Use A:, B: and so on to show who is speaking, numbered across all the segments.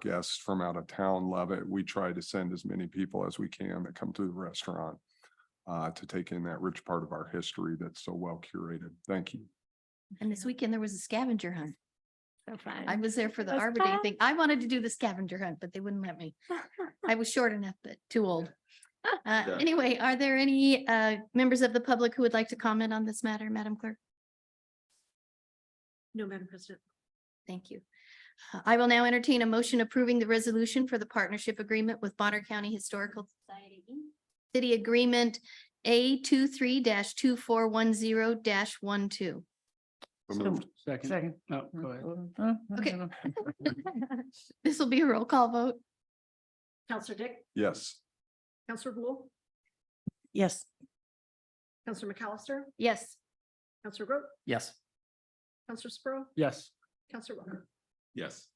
A: guests from out of town love it. We try to send as many people as we can that come to the restaurant uh, to take in that rich part of our history that's so well curated. Thank you.
B: And this weekend there was a scavenger hunt.
C: So
B: I
C: fun.
B: was there for the
C: Was
B: Arbor Day
C: that-
B: thing. I wanted to do the scavenger hunt, but they wouldn't let me. I was short enough, but too old. Uh,
A: Yeah.
B: anyway, are there any, uh, members of the public who would like to comment on this matter, Madam Clerk?
C: No, Madam President.
B: Thank you. Uh, I will now entertain a motion approving the resolution for the partnership agreement with Bonner County Historical Society. Inc. City Agreement A 23 two four one zero 12
A: So moved.
D: Second.
E: Second.
D: No, go ahead.
B: Okay. This will be a roll call vote.
C: Counselor Dick,
A: Yes.
C: Counselor Rule,
E: Yes.
C: Counselor McAllister,
B: Yes.
C: Counselor Groot,
D: Yes.
C: Counselor Sprow,
D: Yes.
C: Counselor Walker.
A: Yes.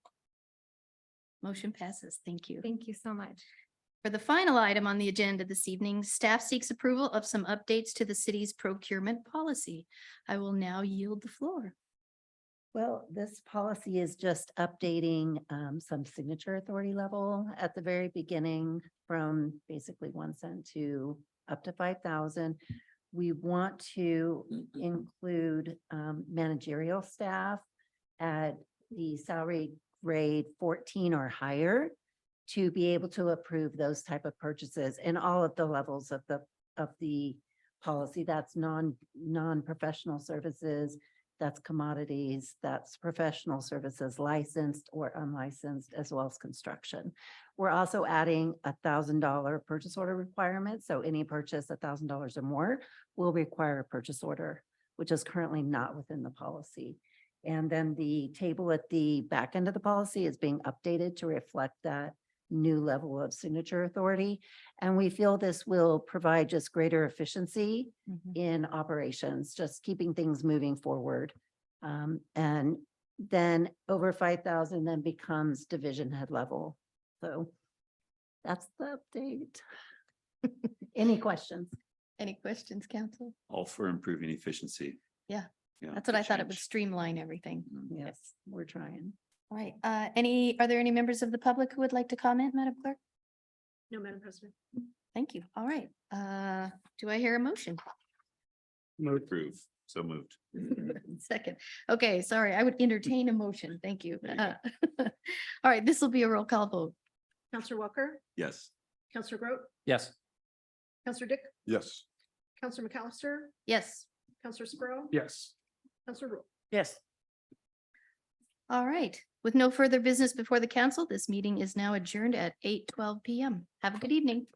B: Motion passes. Thank you.
C: Thank you so much.
B: For the final item on the agenda this evening, staff seeks approval of some updates to the city's procurement policy. I will now yield the floor.
F: Well, this policy is just updating um, some signature authority level at the very beginning from basically one cent to up to five thousand. We want to include um, managerial staff at the salary grade fourteen or higher to be able to approve those type of purchases in all of the levels of the, of the policy. That's non, non-professional services, that's commodities, that's professional services licensed or unlicensed, as well as construction. We're also adding a thousand dollar purchase order requirement, so any purchase a thousand dollars or more will require a purchase order, which is currently not within the policy. And then the table at the back end of the policy is being updated to reflect that new level of signature authority. And we feel this will provide just greater efficiency in operations, just keeping things moving forward. Um, and then over five thousand then becomes division head level. So that's the update. Any questions?
B: Any questions, council?
G: all for improving efficiency.
B: Yeah,
G: Yeah,
B: That's what I
G: to
B: thought. It would
G: change.
B: streamline everything.
F: Yes, we're trying.
B: All right. Uh, any, are there any members of the public who would like to comment, Madam Clerk?
C: No, Madam President.
B: Thank you. All right. Uh, do I hear a motion?
D: Move.
G: Approve, so moved.
B: Second. Okay, sorry. I would entertain a motion. Thank you.
G: There you
B: Uh, All right, this will be a roll call vote.
C: Counselor Walker,
G: Yes,
C: Counselor Groot,
D: Yes.
C: Counselor Dick,
A: Yes.
C: Counselor McAllister,
B: Yes.
C: Counselor Sprow,
D: Yes.
C: Counselor Rule.
E: Yes.
B: All right. With no further business before the council, this meeting is now adjourned at eight twelve PM. Have a good evening.